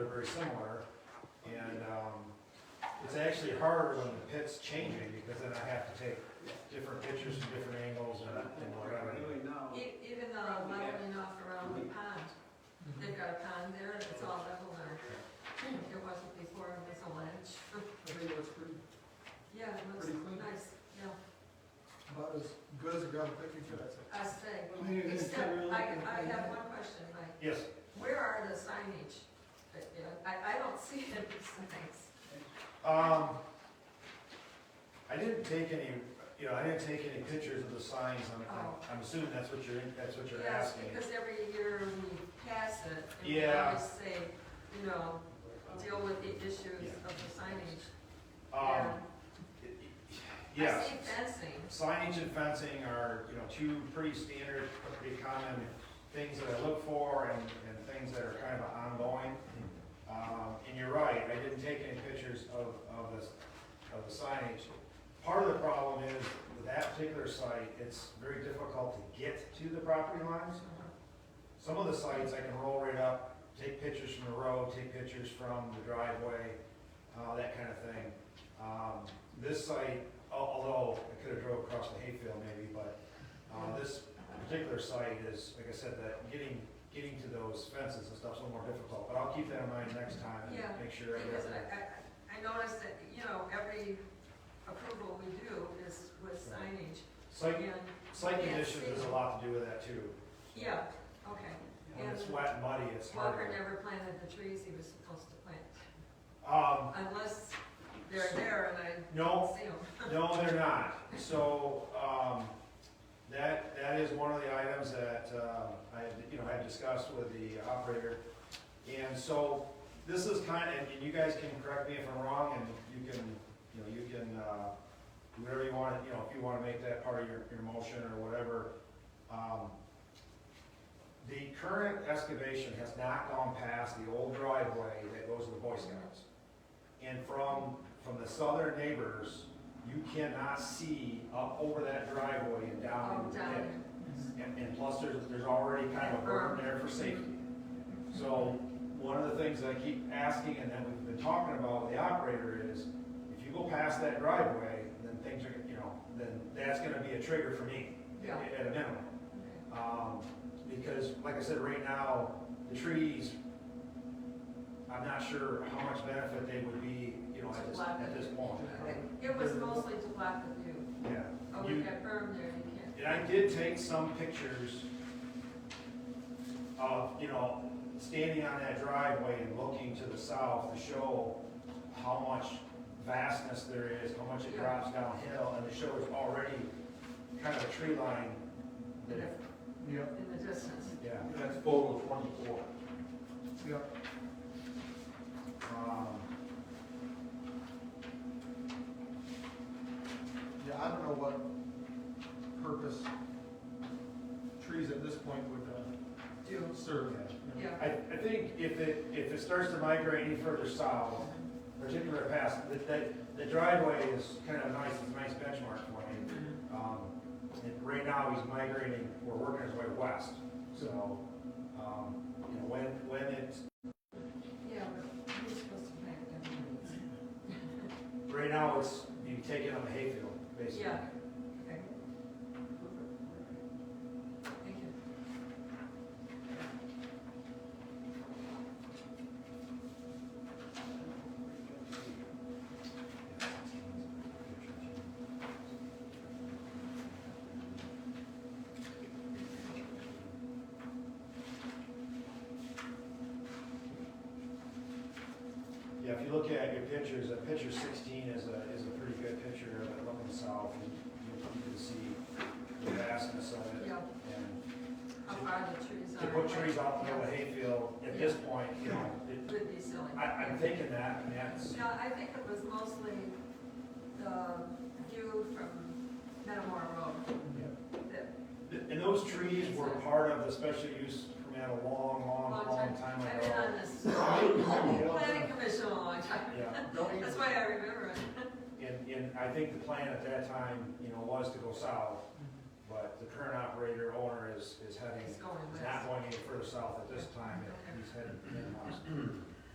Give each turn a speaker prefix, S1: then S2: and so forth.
S1: very similar. And, um, it's actually harder when the pit's changing because then I have to take different pictures from different angles and and whatever.
S2: Really now,
S3: E- Even the leveling off around the pond, they've got a pond there, and it's all level now. It wasn't before, it was a ledge.
S2: I think it looks pretty,
S3: Yeah, it looks
S2: Pretty clean.
S3: nice, yeah,
S2: about as good as a graphic picture, that's it.
S3: I say.
S4: Well, here, this
S3: Except,
S4: around
S3: I,
S4: and
S3: I
S4: back.
S3: have one question, Mike,
S1: Yes,
S3: where are the signage? But, you know, I, I don't see it, it's nice.
S1: um, I didn't take any, you know, I didn't take any pictures of the signs. I'm- I'm, I'm assuming that's what you're, that's what you're
S3: Yes,
S1: asking.
S3: because every year we pass it, and we
S1: Yeah.
S3: always say, you know, deal with the issues
S1: Yeah.
S3: of the signage.
S1: Um,
S3: I
S1: yes.
S3: see fencing,
S1: Signage and fencing are, you know, two pretty standard, pretty common things that I look for and, and things that are kind of ongoing. Um, and you're right, I didn't take any pictures of, of this, of the signage. Part of the problem is with that particular site, it's very difficult to get to the property lines. Some of the sites I can roll right up, take pictures from the road, take pictures from the driveway, uh, that kind of thing. Um, this site, al- although I could have drove across the hayfield maybe, but, uh, this particular site is, like I said, that getting, getting to those fences and stuff's a little more difficult, but I'll keep that in mind next time
S3: Yeah,
S1: and make sure. I
S3: because
S1: get
S3: I,
S1: that.
S3: I, I noticed that, you know, every approval we do is with signage,
S1: Site,
S3: and,
S1: site
S3: Yeah,
S1: conditions has a
S3: see.
S1: lot to do with that too.
S3: yeah, okay.
S1: When it's
S3: And
S1: wet and muddy, it's
S3: Walker
S1: harder.
S3: never planted the trees he was supposed to plant,
S1: Um,
S3: unless they're there and I
S1: no,
S3: don't see them.
S1: No, they're not. So, um, that, that is one of the items that, uh, I, had, you know, I discussed with the operator. And so, this is kind of, and you guys can correct me if I'm wrong, and you can, you know, you can, uh, do whatever you want, you know, if you wanna make that part of your, your motion or whatever. Um, The current excavation has not gone past the old driveway that goes to the Boy Scouts. And from, from the southern neighbors, you cannot see up over that driveway and down.
S3: Oh, down. Uh-huh.
S1: And, and plus, there's, there's already kind of a berm there for safety. So, one of the things that I keep asking, and that we've been talking about with the operator is, if you go past that driveway, then things are, gonna- you know, then that's gonna be a trigger for me,
S3: Yeah.
S1: at at a minimum.
S3: Okay.
S1: Um, because, like I said, right now, the trees, I'm not sure how much benefit they would be, you know, at this, at this point.
S3: It was mostly to block the view,
S1: Yeah.
S3: oh,
S1: You-
S3: we got berm there, you can't.
S1: And I did take some pictures of, you know, standing on that driveway and looking to the south to show how much vastness there is, how much it
S3: Yeah.
S1: drops downhill, and to show it's already kind of a tree line.
S3: In
S1: that-
S3: the-
S2: Yep.
S3: in the distance.
S1: Yeah.
S4: That's photo twenty-four.
S2: Yep,
S1: Um,
S2: yeah, I don't know what purpose trees at this point would, uh, serve. you know.
S3: Yeah,
S1: I, I think if it, if it starts to migrate any further south, particularly past, that, that, the driveway is kind of nice, it's a nice benchmark for me. Um, and right now, he's migrating, we're working his way west, so, um, you know, when, when it's,
S3: yeah, but you're supposed to plant them.
S1: right now, it's, you take it on the hayfield, basically.
S3: Yeah, okay. Thank you.
S1: Yeah, if you look at your pictures, uh, picture sixteen is a, is a pretty good picture of it looking south, and you you can see the vastness of it.
S3: Yeah,
S1: And
S3: how far the trees are.
S1: to put trees out in the middle of the hayfield, at this point, you know, it,
S3: Would be silly.
S1: I, I'm thinking that, and that's,
S3: No, I think it was mostly the view from Metamora Road that,
S1: and those trees were part of the special use permit a long, long,
S3: long
S1: long
S3: time,
S1: time
S3: I've been
S1: ago.
S3: on this planning commission a long time.
S1: Yeah,
S2: Don't even-
S3: That's why I remember it.
S1: and, and I think the plan at that time, you know, was to go south, but the current operator owner is, is heading,
S3: It's going
S1: is
S3: west.
S1: not going any further south at this time, he's heading in west.